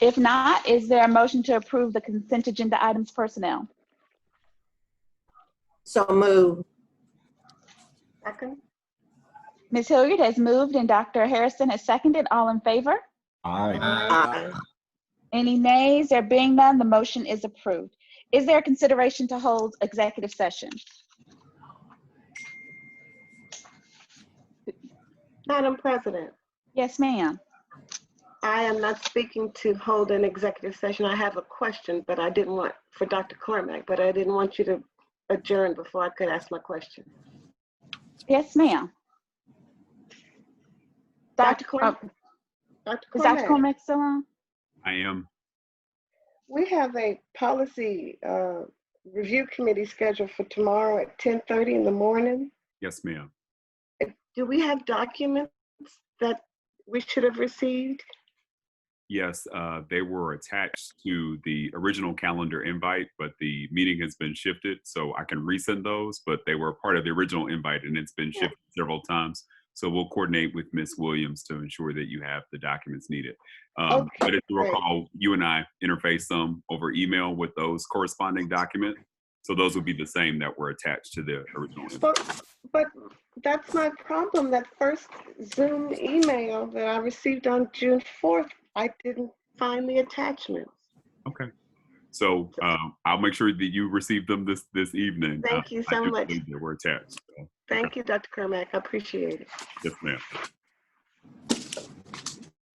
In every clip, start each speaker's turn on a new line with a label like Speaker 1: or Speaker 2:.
Speaker 1: If not, is there a motion to approve the consent agenda items personnel?
Speaker 2: So move.
Speaker 3: Second?
Speaker 1: Ms. Hilliard has moved and Dr. Harrison has seconded. All in favor?
Speaker 4: Aye.
Speaker 2: Aye.
Speaker 1: Any nays? There being none, the motion is approved. Is there a consideration to hold executive session?
Speaker 3: Madam President,
Speaker 1: Yes, ma'am.
Speaker 3: I am not speaking to hold an executive session. I have a question, but I didn't want, for Dr. Cormack, but I didn't want you to adjourn before I could ask my question.
Speaker 1: Yes, ma'am. Dr.
Speaker 3: Dr.
Speaker 1: Cor-
Speaker 3: Cormack? Dr.
Speaker 1: Is Dr.
Speaker 3: Cormack,
Speaker 1: Uh, Cormack still on?
Speaker 5: I am.
Speaker 3: we have a policy uh, review committee scheduled for tomorrow at 10:30 in the morning.
Speaker 5: Yes, ma'am.
Speaker 3: Do we have documents that we should have received?
Speaker 5: Yes, uh, they were attached to the original calendar invite, but the meeting has been shifted, so I can resend those, but they were part of the original invite and it's been shifted several times. So we'll coordinate with Ms. Williams to ensure that you have the documents needed. Um,
Speaker 3: Okay,
Speaker 5: but if you
Speaker 3: great.
Speaker 5: recall, you and I interfaced them over email with those corresponding documents. So those would be the same that were attached to the original. invite.
Speaker 3: But, but that's my problem. That first Zoom email that I received on June 4th, I didn't find the attachments.
Speaker 5: Okay. So um, I'll make sure that you receive them this, this evening. Uh,
Speaker 3: Thank you
Speaker 5: I
Speaker 3: so
Speaker 5: do
Speaker 3: much.
Speaker 5: believe They were attached. so,
Speaker 3: Thank you, Dr. Kermack. I appreciate it.
Speaker 5: Yes, ma'am.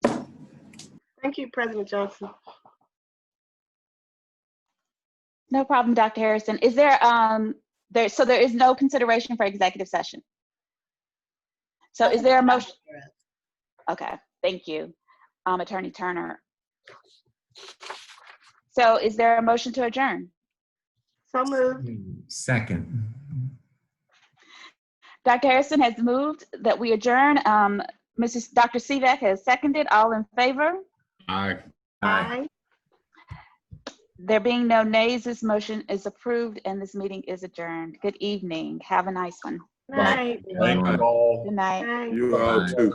Speaker 3: Thank you, President Johnson.
Speaker 1: No problem, Dr. Harrison. Is there, um, there, so there is no consideration for executive session? So is there a motion? Okay, thank you, um, Attorney Turner. So is there a motion to adjourn?
Speaker 3: So moved.
Speaker 4: Second.
Speaker 1: Dr. Harrison has moved that we adjourn. Um, Mrs. Dr. Sivak has seconded. All in favor?
Speaker 4: Aye.
Speaker 3: Aye.
Speaker 1: There being no nays, this motion is approved and this meeting is adjourned. Good evening. Have a nice one.
Speaker 3: Night.
Speaker 4: Aye.
Speaker 6: Thank you all.
Speaker 1: Good night.
Speaker 3: Night.
Speaker 6: You all too.